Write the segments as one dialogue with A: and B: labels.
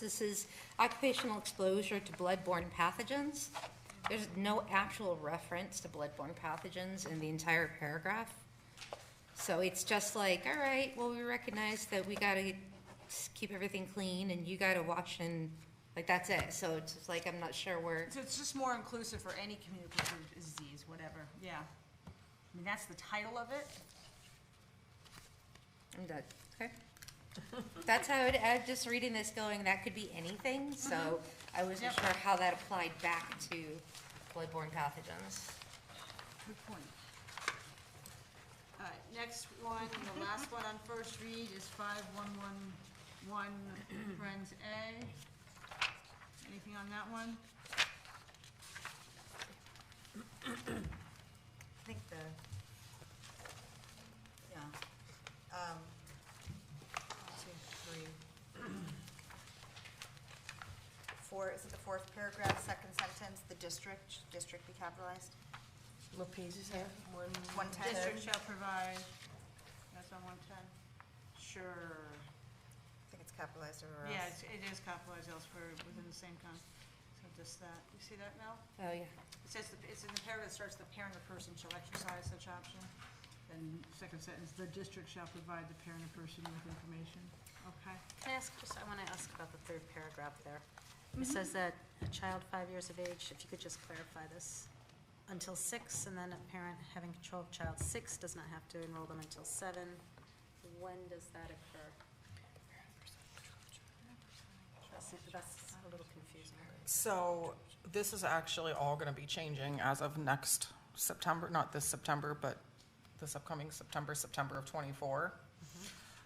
A: This is occupational exposure to bloodborne pathogens. There's no actual reference to bloodborne pathogens in the entire paragraph. So it's just like, all right, well, we recognize that we gotta s- keep everything clean and you gotta wash and, like, that's it. So it's just like, I'm not sure where,
B: So it's just more inclusive for any communicable disease, whatever, yeah. I mean, that's the title of it.
A: I'm done, okay? That's how it, I'm just reading this going, that could be anything, so I wasn't
B: Yep.
A: sure how that applied back to bloodborne pathogens.
B: Good point. All right, next one, and the last one on first read is five one one one, Friends A. Anything on that one?
C: I think the, yeah, um, one, two, three. Four, is it the fourth paragraph, second sentence, the district, district be capitalized?
D: What page is that? One.
C: One ten.
B: District shall provide, that's on one ten. Sure.
C: I think it's capitalized everywhere
B: Yeah,
C: else.
B: it's- it is capitalized elsewhere within the same con, so just that. You see that, Mel?
A: Oh, yeah.
B: It says, the- it's in the paragraph that starts, the parent or person shall exercise such option. And second sentence, the district shall provide the parent or person with information. Okay.
E: Can I ask, just, I want to ask about the third paragraph there. It says that a child five years of age, if you could just clarify this, until six, and then a parent having control of child six does not have to enroll them until seven. When does that occur? That's, that's a little confusing.
D: So this is actually all going to be changing as of next September, not this September, but this upcoming September, September of '24,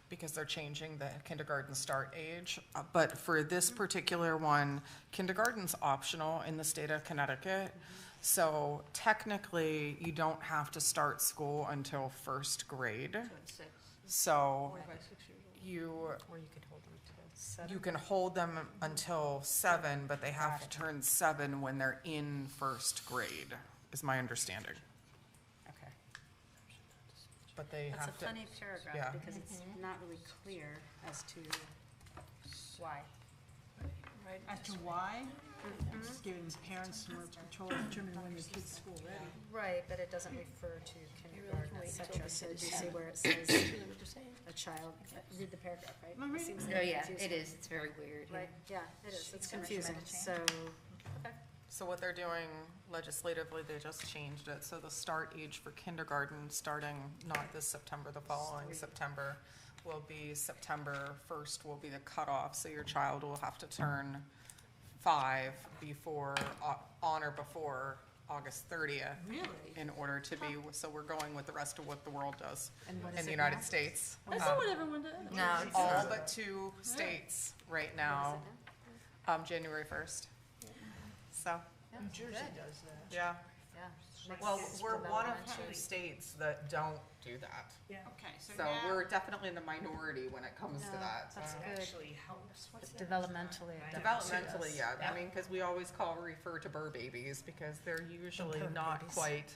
D: because they're changing the kindergarten start age. Uh, But for this particular one, kindergarten's optional in the state of Connecticut. So technically, you don't have to start school until first grade. So you
E: Or you could hold them to
D: You
E: seven.
D: can hold them until seven, but they have to turn seven when they're in first grade, is my understanding.
E: Okay.
D: But they
E: That's a
D: have to,
E: funny
D: yeah.
E: paragraph, because it's not really clear as to why.
B: As to why, just giving parents more control of determining when their kid's school ready.
E: Right, but it doesn't refer to kindergarten, et cetera, so did you see where it says a child, read the paragraph, right?
B: I'm
E: It
B: reading
E: seems
A: Oh,
E: very
A: yeah, it
E: confusing.
A: is, it's very weird.
E: Right, yeah, it is, it's confusing, so,
D: so what they're doing legislatively, they just changed it, so the start age for kindergarten, starting not this September, the following September, will be September first will be the cutoff, so your child will have to turn five before, uh, on or before August thirtieth.
B: Really?
D: in order to be, so we're going with the rest of what the world does in the United States. Um,
B: everyone does.
A: No, it's
D: All
A: not.
D: but two states right now, um, January first. So,
F: New Jersey does that.
D: yeah,
E: yeah.
D: well, we're one of two states that don't do that.
B: Okay, so
D: So
B: now,
D: we're definitely in the minority when it comes to that.
E: That's
D: so.
E: good,
F: Actually helps. What's that?
E: developmentally.
D: Developmentally, yeah, I mean, because we always call, refer to burr babies because they're usually not quite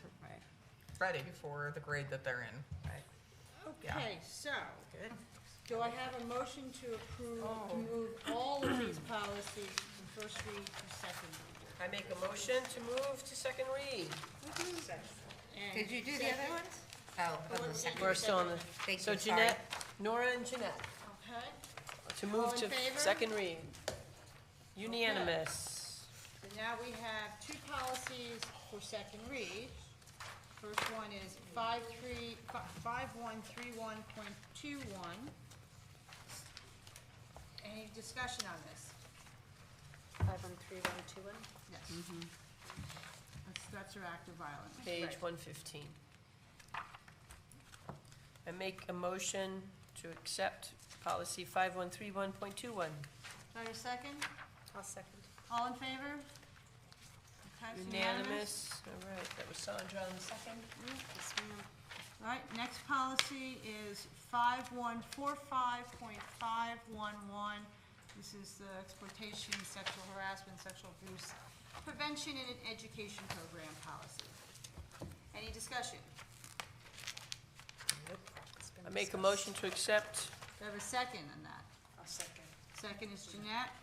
D: ready for the grade that they're in. yeah.
B: okay, so, do I have a motion to approve, to move all of these policies from first read to second read?
F: I make a motion to move to second read.
B: And
A: Did you do the
B: second-
A: other ones? Oh, on the second.
F: We're still on the,
A: Thank
F: so
A: you, sorry.
F: Jeanette, Nora and Jeanette,
B: Okay,
F: to
B: All
F: move
B: in
F: to
B: favor?
F: second read. Unanimous.
B: so now we have two policies for second read. First one is five three, five one three one point two one. Any discussion on this?
E: Five one three one two one,
B: Yes. That's, that's your act of violence.
F: Mm-hmm. Page
B: Right.
F: one fifteen. I make a motion to accept policy five one three one point two one.
B: Do I have a second?
E: I'll second.
B: All in favor? Okay, it's
F: Unanimous, all right, that was Sandra on the second.
E: Yes, ma'am.
B: All right, next policy is five one four five point five one one. This is the exploitation, sexual harassment, sexual abuse prevention and an education program policy. Any discussion?
F: I make a motion to accept
B: Do I have a second on that?
E: I'll second.
B: Second is Jeanette.